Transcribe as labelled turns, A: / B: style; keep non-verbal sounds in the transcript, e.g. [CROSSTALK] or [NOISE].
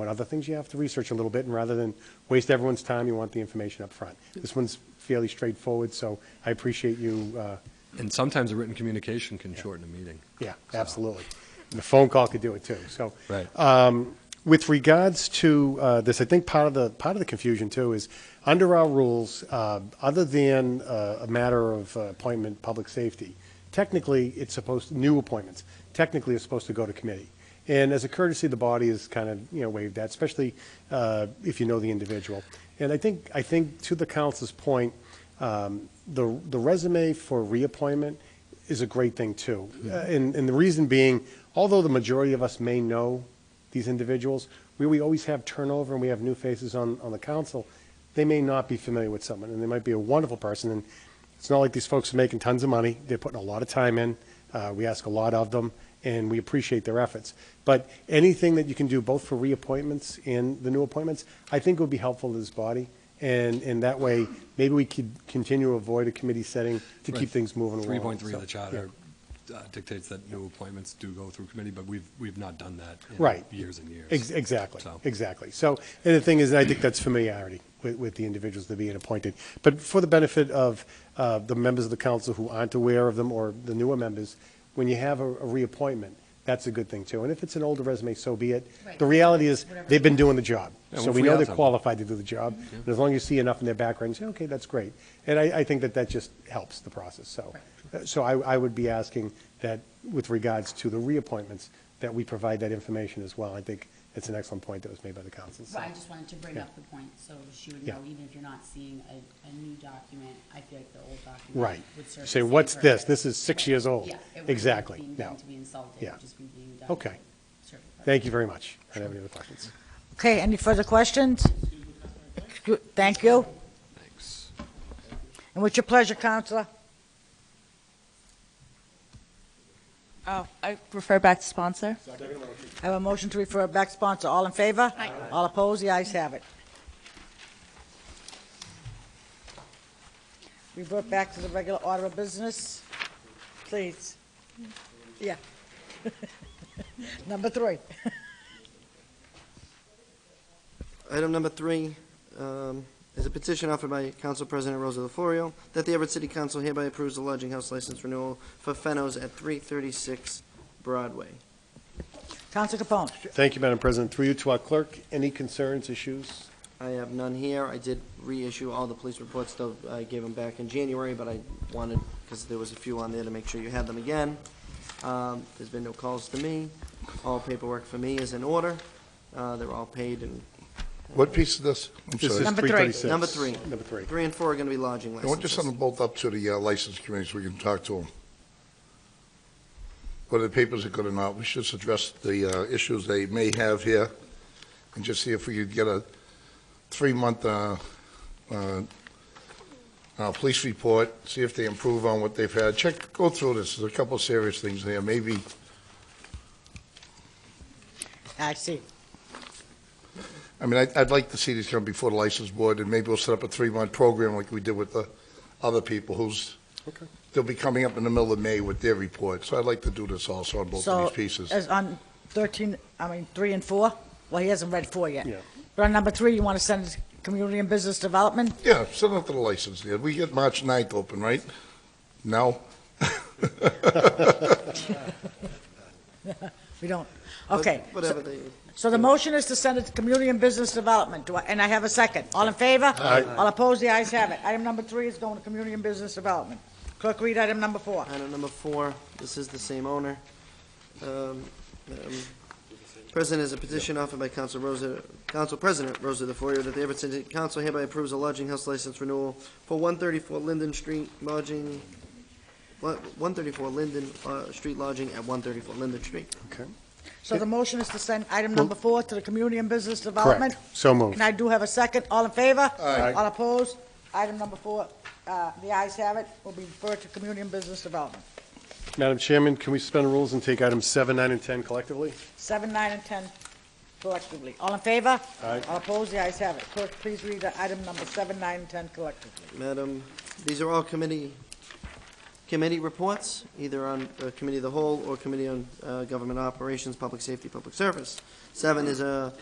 A: on other things, you have to research a little bit, and rather than waste everyone's time, you want the information up front. This one's fairly straightforward, so I appreciate you, uh,
B: And sometimes a written communication can shorten a meeting.
A: yeah, absolutely. And the phone call could do it too, so.
B: Right.
A: Uh, With regards to uh, this, I think part of the, part of the confusion too is, under our rules, uh, other than uh, a matter of uh, appointment, public safety, technically, it's supposed, new appointments, technically it's supposed to go to committee. And as a courtesy, the body is kind of, you know, waived that, especially uh, if you know the individual. And I think, I think to the council's point, um, the, the resume for reappointment is a great thing too. Uh, And, and the reason being, although the majority of us may know these individuals, we, we always have turnover and we have new faces on, on the council, they may not be familiar with someone and they might be a wonderful person. And it's not like these folks are making tons of money. They're putting a lot of time in. Uh, we ask a lot of them and we appreciate their efforts. But anything that you can do both for reappointments and the new appointments, I think would be helpful to this body. And, and that way, maybe we could continue to avoid a committee setting to keep
B: Right.
A: things moving along.
B: 3.3 of
A: So,
B: the charter uh, dictates that new appointments do go through committee, but we've, we've not done that
A: Right.
B: in years and years.
A: Ex- Exactly,
B: So-
A: exactly. So, and the thing is, I think that's familiarity with, with the individuals that are being appointed. But for the benefit of uh, the members of the council who aren't aware of them, or the newer members, when you have a a reappointment, that's a good thing too. And if it's an older resume, so be it.
C: Right.
A: The reality is, they've been doing the job.
B: Yeah,
A: So
B: we'll
A: we
B: free
A: know
B: up
A: they're
B: some.
A: qualified to do the job. And as long as you see enough in their background, you say, okay, that's great. And I, I think that that just helps the process, so. Uh, So I, I would be asking that with regards to the reappointments, that we provide that information as well. I think it's an excellent point that was made by the council. so.
C: Well, I just wanted to bring up the point, so she would
A: Yeah.
C: know, even if you're not seeing a, a new document, I feel like the old document
A: Right.
C: would serve.
A: You
C: the
A: Say,
C: same
A: what's this?
C: purpose."
A: This is six years old.
C: Yeah. it wouldn't be
A: Exactly,
C: being
A: no.
C: done To be insulted, it
A: Yeah.
C: would just be the new document.
A: Okay.
C: Serve the
A: Thank you very much. I don't have any other questions.
D: Okay, any further questions? Thank you.
B: Thanks.
D: And what's your pleasure, Counselor?
E: Oh, I refer back to sponsor.
D: I have a motion to refer back sponsor. All in favor? Aye. All opposed? The ayes have it. Revert back to the regular order of business, please. Yeah. [LAUGHS] Number three.
F: Item number three um, is a petition offered by Council President Rosa DeFlorio that the Everett City Council hereby approves the lodging house license renewal for Fennos at 336 Broadway.
D: Counselor Capone.
A: Thank you, Madam President. Through you to our clerk, any concerns, issues?
F: I have none here. I did reissue all the police reports, though I gave them back in January, but I wanted, because there was a few on there, to make sure you had them again. Um, There's been no calls to me. All paperwork for me is in order. Uh, They're all paid, and
G: What piece of this? I'm
A: This
G: sorry.
A: is
D: Number three.
A: 336.
F: Number three.
A: Number three.
F: three and four are going to be lodging
G: I want you to send them
F: licenses.
G: both up to the uh, license committee so we can talk to them. Whether the papers are good or not, we should just address the uh, issues they may have here and just see if we could get a three-month uh, uh, uh, police report, see if they improve on what they've had. Check, go through this, there's a couple of serious things there, maybe
D: I see.
G: I mean, I'd, I'd like to see these come before the license board, and maybe we'll set up a three-month program like we did with the other people who's, they'll be coming up in the middle of May with their report, so I'd like to do this also on both of
D: So,
G: these pieces.
D: as on 13, I mean, 3 and 4? Well, he hasn't read 4 yet.
A: Yeah.
D: But on number 3, you want to send it to Community and Business Development?
G: Yeah, send it to the license, yeah, we get March 9th open, right? No?
D: We don't, okay.
F: But Whatever they,
D: So the motion is to send it to Community and Business Development, Do I- and I have a second. All in favor? Aye. All opposed, the ayes have it. Item number 3 is going to Community and Business Development. Clerk, read item number 4.
F: Item number four, this is the same owner. Um, um, President is a petition offered by Council Rosa, Council President Rosa DeForio that the Everett City Council hereby approves a lodging house license renewal for one thirty-four Linden Street lodging, one thirty-four Linden, uh, Street lodging at one thirty-four Linden Street.
D: So the motion is to send item number 4 to the Community and Business Development.
A: Correct. So moved.
D: And I do have a second. All in favor?
G: Aye.
D: All opposed? Item number 4, uh, the ayes have it, will be referred to Community and Business Development.
A: Madam Chairman, can we suspend rules and take items seven, nine, and 10 collectively?
D: 7, 9, and 10 collectively. All in favor?
A: Aye.
D: All opposed? The ayes have it. Clerk, please read the item number 7, 9, and 10 collectively.
F: Madam, these are all committee, committee reports, either on uh, Committee of the Whole or Committee on uh, Government Operations, Public Safety, Public Service. Seven is a